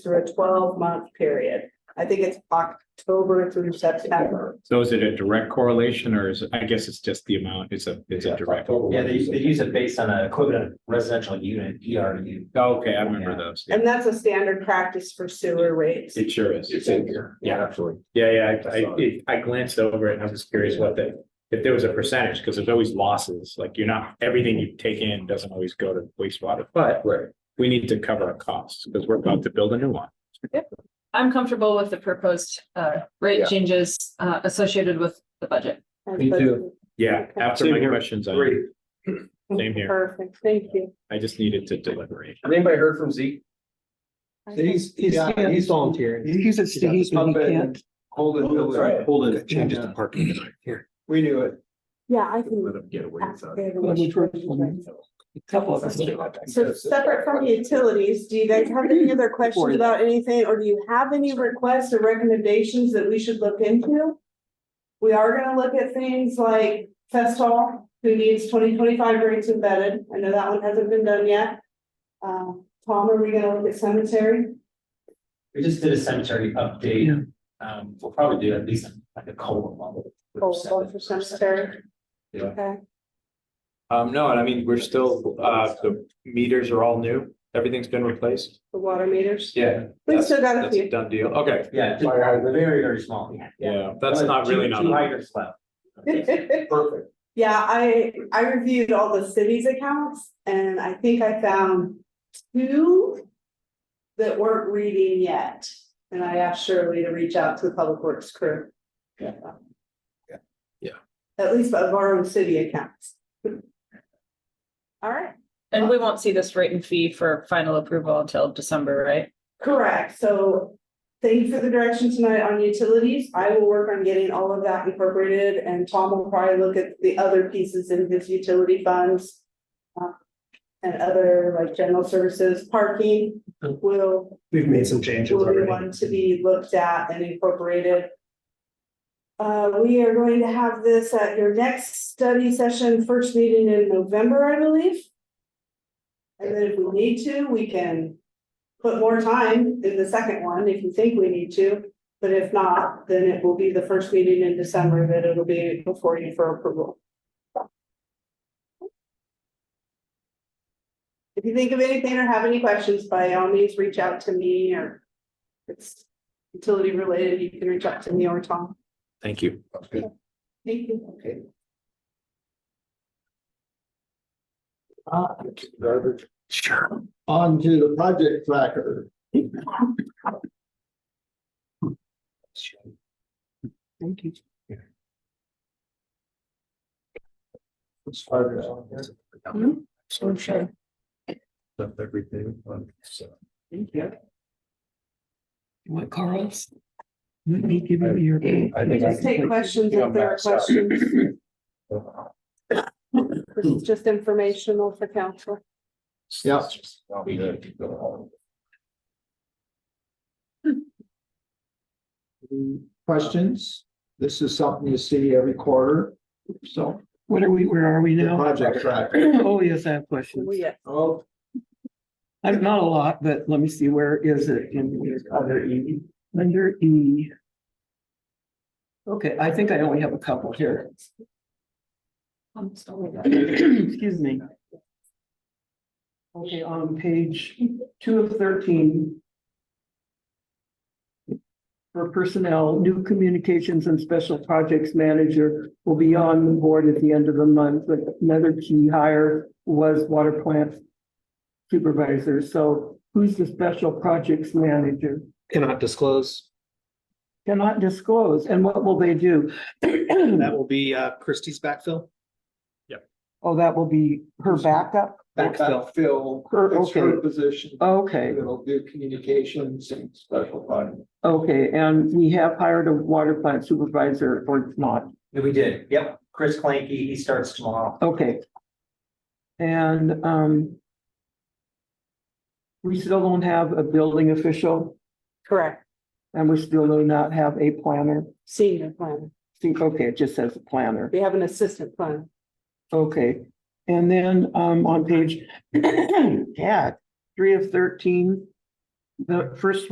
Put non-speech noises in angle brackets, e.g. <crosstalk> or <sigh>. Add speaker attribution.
Speaker 1: through a twelve month period. I think it's October through September.
Speaker 2: So is it a direct correlation or is, I guess it's just the amount, it's a, it's a direct.
Speaker 3: Yeah, they, they use it based on a equivalent residential unit, E ERU.
Speaker 2: oh, Okay, I remember those.
Speaker 1: And that's a standard practice for sewer rates.
Speaker 2: It sure is.
Speaker 3: here. Yeah, absolutely.
Speaker 2: Yeah, yeah, I, I, it- I glanced over it and I was just curious what the, if there was a percentage, because there's always losses, like you're not, everything you take in doesn't always go to wastewater, but
Speaker 3: Right.
Speaker 2: we need to cover our costs because we're about to build a new one.
Speaker 4: I'm comfortable with the proposed uh
Speaker 3: Yeah.
Speaker 4: rate changes uh associated with the budget.
Speaker 3: Me
Speaker 1: <laughs>
Speaker 3: too.
Speaker 2: Yeah, after my
Speaker 3: Same here.
Speaker 2: questions, I,
Speaker 3: Great.
Speaker 2: Same here.
Speaker 1: Perfect, thank you.
Speaker 2: I just needed to deliberate.
Speaker 3: Has anybody heard from Zeke?
Speaker 5: He's, he's,
Speaker 3: Yeah, he's volunteering.
Speaker 5: he's at state, he can't.
Speaker 3: Hold it, hold it, hold it.
Speaker 5: Changes to parking tonight, here.
Speaker 3: We knew it.
Speaker 1: Yeah, I can.
Speaker 3: him get away
Speaker 1: ask her the
Speaker 5: Well, which one?
Speaker 1: question.
Speaker 5: Couple of us.
Speaker 1: So separate from utilities, do you guys have any other questions about anything, or do you have any requests or recommendations that we should look into? We are gonna look at things like test hall, who needs twenty twenty-five rates embedded, I know that one hasn't been done yet. Uh, Tom, are we gonna look at cemetery?
Speaker 3: We just did a cemetery update. Um, we'll probably do at least like a cold level.
Speaker 1: Cold one for cemetery.
Speaker 3: Yeah.
Speaker 1: Okay.
Speaker 2: Um, no, and I mean, we're still, uh, the meters are all new. Everything's been replaced.
Speaker 1: The water meters,
Speaker 2: Yeah.
Speaker 1: we still got a
Speaker 2: That's a
Speaker 1: few,
Speaker 2: done deal. Okay.
Speaker 3: Yeah, just- very, very small.
Speaker 2: Yeah, that's not really
Speaker 3: Two-
Speaker 2: not.
Speaker 3: Two hydrants left. Perfect.
Speaker 1: yeah, I, I reviewed all the city's accounts, and I think I found two that weren't reading yet, and I asked Shirley to reach out to the public works crew.
Speaker 3: Yeah.
Speaker 1: Yeah.
Speaker 2: Yeah.
Speaker 1: At least of our own city accounts. All right,
Speaker 4: And we won't see this rate and fee for final approval until December, right?
Speaker 1: correct, so thank you for the direction tonight on utilities, I will work on getting all of that incorporated, and Tom will probably look at the other pieces in his utility funds. uh, And other like general services, parking will
Speaker 5: We've made some changes
Speaker 1: will be
Speaker 5: already.
Speaker 1: one to be looked at and incorporated. Uh, we are going to have this at your next study session, first meeting in November, I believe. And then if we need to, we can put more time in the second one if you think we need to. But if not, then it will be the first meeting in December that it'll be before you for approval. If you think of anything or have any questions, by all means, reach out to me or if it's utility related, you can reach out to me or Tom.
Speaker 2: Thank you.
Speaker 1: Thank you.
Speaker 3: Okay. Ah, garbage.
Speaker 5: Sure.
Speaker 3: On to the project tracker.
Speaker 5: Thank you. Hmm?
Speaker 4: So sure.
Speaker 3: everything, so.
Speaker 5: Thank you. What, Carl's? Let me give you your.
Speaker 3: I
Speaker 1: We
Speaker 3: think
Speaker 1: just take questions if there are questions. This is just informational for council.
Speaker 3: Yeah.
Speaker 6: questions. This is something you see every quarter, so
Speaker 5: What are we, where are we
Speaker 6: the
Speaker 5: now?
Speaker 6: project track.
Speaker 5: <clears throat> Oh, yes, I have questions.
Speaker 1: We,
Speaker 6: Oh,
Speaker 5: I'm not a lot, but let me see, where is it in here? under E? Under E. Okay, I think I only have a couple here. <clears throat> Excuse me. Okay, on page two of thirteen. For personnel, new communications and special projects manager will be on the board at the end of the month, but another key hire was water plant supervisor, so who's the special projects manager?
Speaker 7: cannot disclose.
Speaker 5: Cannot disclose, and what will they do?
Speaker 7: That will be uh Christie's backfill.
Speaker 5: <clears throat> Oh, that will be her backup?
Speaker 6: Backfill, Phil,
Speaker 5: Her-
Speaker 6: it's her
Speaker 5: okay.
Speaker 6: position,
Speaker 5: Okay,
Speaker 6: it'll do communications and special fund.
Speaker 5: okay, and we have hired a water plant supervisor or not,
Speaker 3: We did, yep, Chris Clanky, he starts tomorrow.
Speaker 5: okay. And, um. We still don't have a building official
Speaker 1: correct,
Speaker 5: and we still do not have a planner.
Speaker 1: senior plan.
Speaker 5: See, okay, it just says planner.
Speaker 1: We have an assistant plan.
Speaker 5: Okay, and then um <coughs> on page, yeah, three of thirteen. The first